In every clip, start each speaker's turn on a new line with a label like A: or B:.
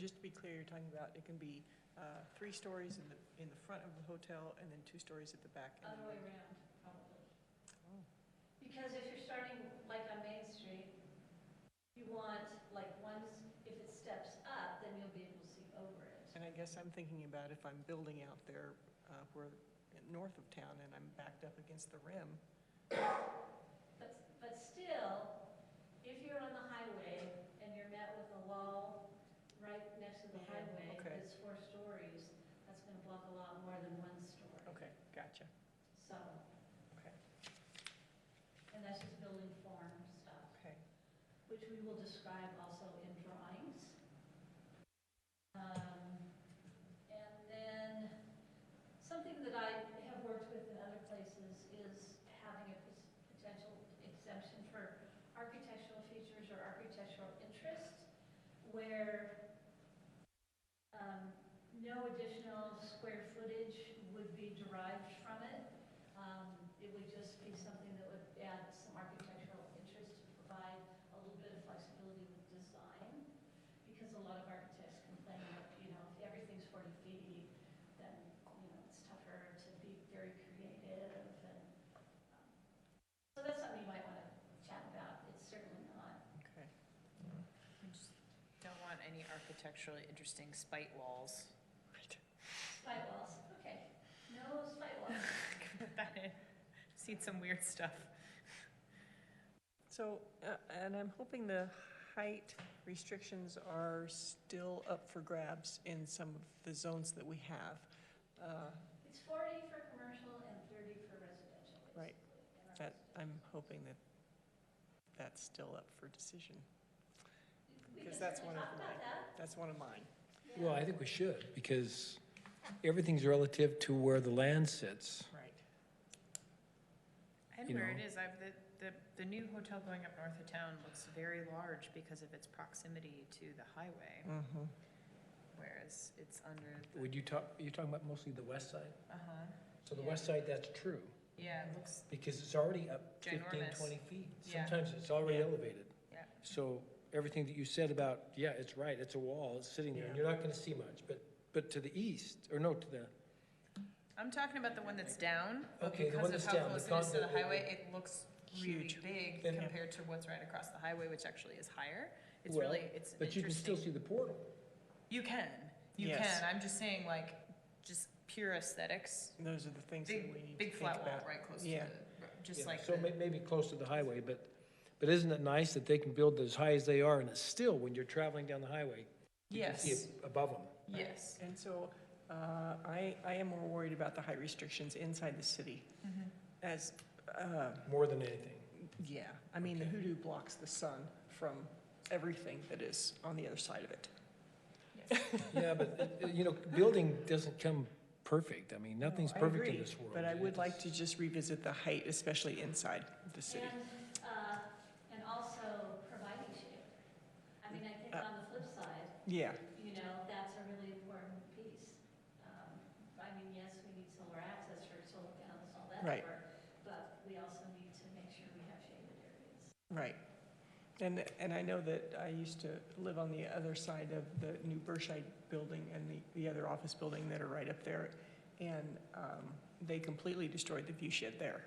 A: just to be clear, you're talking about, it can be uh, three stories in the, in the front of the hotel and then two stories at the back. and
B: Other
A: then-
B: way around, probably.
A: Oh.
B: Because if you're starting like on Main Street, you want, like, once, if it steps up, then you'll be able to see over it.
A: And I guess I'm thinking about if I'm building out there, uh, where, in- north of town, and I'm backed up against the rim,
B: But, but still, if you're on the highway and you're met with a wall right next to the
A: Yeah,
B: highway,
A: Mm-hmm. okay.
B: that's four stories, that's gonna block a lot more than one story.
A: okay, gotcha,
B: So,
A: okay,
B: and that's just building form stuff.
A: okay.
B: which we will describe also in drawings. Um, And then, something that I have worked with in other places is having a pos- potential exemption for architectural features or architectural interest, where um, no additional square footage would be derived from it. Um, It would just be something that would add some architectural interest to provide a little bit of flexibility with design, because a lot of architects complain that, you know, if everything's 40 feet, then, you know, it's tougher to be very creative and, um, so that's something you might want to chat about. It's certainly not.
A: Okay.
C: We just Don't want any architecturally interesting spite walls.
B: Spy walls, okay. No spy walls.
C: Put that in. Seen some weird stuff.
A: So, uh, and I'm hoping the height restrictions are still up for grabs in some of the zones that we have. Uh,
B: It's 40 for commercial and 30 for residential,
A: Right.
B: basically. in our
A: That,
B: residential.
A: I'm hoping that that's still up for decision.
B: We
A: because
B: can
A: that's
B: certainly
A: one of
B: talk
A: my-
B: about that.
A: That's one of mine.
B: Yeah.
D: Well, I think we should, because everything's relative to where the land sits.
A: Right.
C: And
D: You
C: where it
D: know.
C: is, I've, the, the, the new hotel going up north of town looks very large because of its proximity to the highway,
A: Mm-hmm.
C: whereas it's under the,
D: Would you talk, you're talking about mostly the west side?
C: uh-huh.
D: So the west side, that's true,
C: Yeah, it looks,
D: because it's already up 15,
C: Ginormous.
D: 20 feet.
C: Yeah.
D: Sometimes it's already
A: Yeah.
D: elevated.
C: Yeah.
D: So everything that you said about, yeah, it's right, it's a wall, it's sitting there, and
A: Yeah.
D: you're not gonna see much, but, but to the east, or no, to the,
C: I'm talking about the one that's down, but
D: Okay, the
C: because
D: one
C: of
D: that's
C: how
D: down, the
C: close it is to
D: con-
C: the
D: the- the-
C: highway, it looks really
A: Huge.
C: big
D: Then-
C: compared to what's right across the highway, which actually is higher. It's
D: Well,
C: really, it's
D: but you can still
C: interesting.
D: see the portal.
C: You can, you
A: Yes.
C: can. I'm just saying, like, just pure aesthetics.
A: Those are the things that we
C: Big,
A: need to
C: big
A: think
C: flat wall
A: about.
C: right close to
A: Yeah.
C: the, ro- just
D: Yeah,
C: like
D: So
C: the-
D: may- maybe close to the highway, but, but isn't it nice that they can build as high as they are, and it's still, when you're traveling down the highway, you can see
C: yes,
D: it above them.
C: yes.
A: And so uh, I, I am more worried about the height restrictions inside the city
C: Mhm.
A: as, uh,
D: More than anything.
A: yeah, I mean, the
D: Okay.
A: hoodoo blocks the sun from everything that is on the other side of it.
C: Yes.
D: Yeah, but, uh, you know, building doesn't come perfect. I mean, nothing's
A: No, I
D: perfect in
A: agree,
D: this world.
A: But I
D: It
A: would like
D: is-
A: to just revisit the height, especially inside the city.
B: And, uh, and also providing shade. I mean, I think
A: Uh,
B: on the flip side,
A: Yeah,
B: you know, that's a really important piece. Um, I mean, yes, we need solar access for solar panels, all that
A: Right.
B: work, but we also need to make sure we have shaded areas.
A: right. And, and I know that I used to live on the other side of the new Berkshire building and the, the other office building that are right up there. And um, they completely destroyed the view shed there.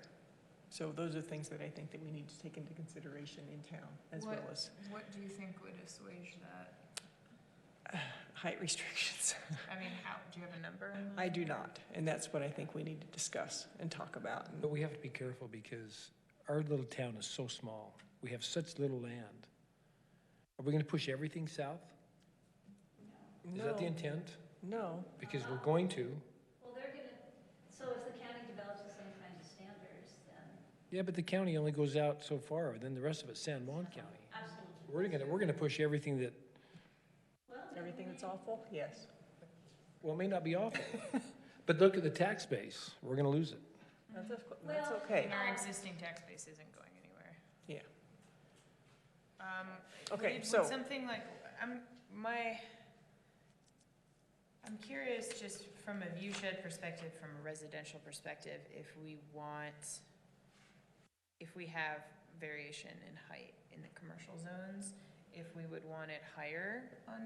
A: So those are things that I think that we need to take into consideration in town as well
E: What-
A: as
E: What do you think would assuage that?
A: height restrictions.
C: I mean, how do you have a number? in mind?
A: I do not, and that's what I think we need to discuss and talk about. and-
D: But we have to be careful because our little town is so small. We have such little land. Are we gonna push everything south? Is that the
A: No,
D: intent?
A: No,
D: Because we're going to.
B: Well, they're gonna, so if the county develops the same kinds of standards, then
D: Yeah, but the county only goes out so far, then the rest of it's San Juan County.
B: absolutely.
D: We're gonna, we're gonna push everything that,
B: Well, then
A: everything
B: we-
A: that's awful, yes.
D: well, it may not be awful, but look at the tax base. We're gonna lose it.
A: That's, that's
B: Well-
A: okay.
C: And our existing tax base isn't going anywhere.
A: Yeah.
C: Um.
A: Okay,
C: would- would
A: so-
C: Something like, I'm, my, I'm curious, just from a view shed perspective, from a residential perspective, if we want, if we have variation in height in the commercial zones, if we would want it higher on